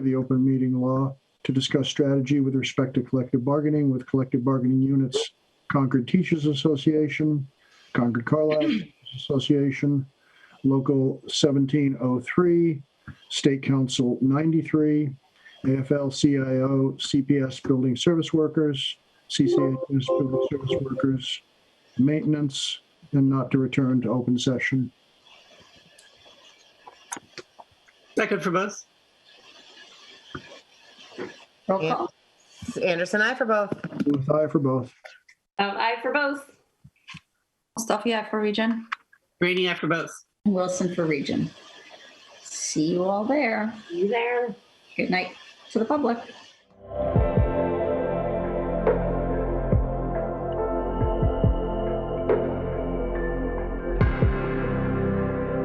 the open meeting law to discuss strategy with respect to collective bargaining with collective bargaining units, Concord Teachers Association, Concord Carlisle Teachers Association, Local 1703, State Council 93, AFL-CIO, CPS Building Service Workers, CCHS Building Service Workers, Maintenance, and not to return to open session. Second for both. Roll Yeah. call. Anderson, I for both. Booth, aye for both. Um, aye for both. Mustafi, aye for region. Rainey after both. Wilson for region. See you all there. You there? Good night to the public.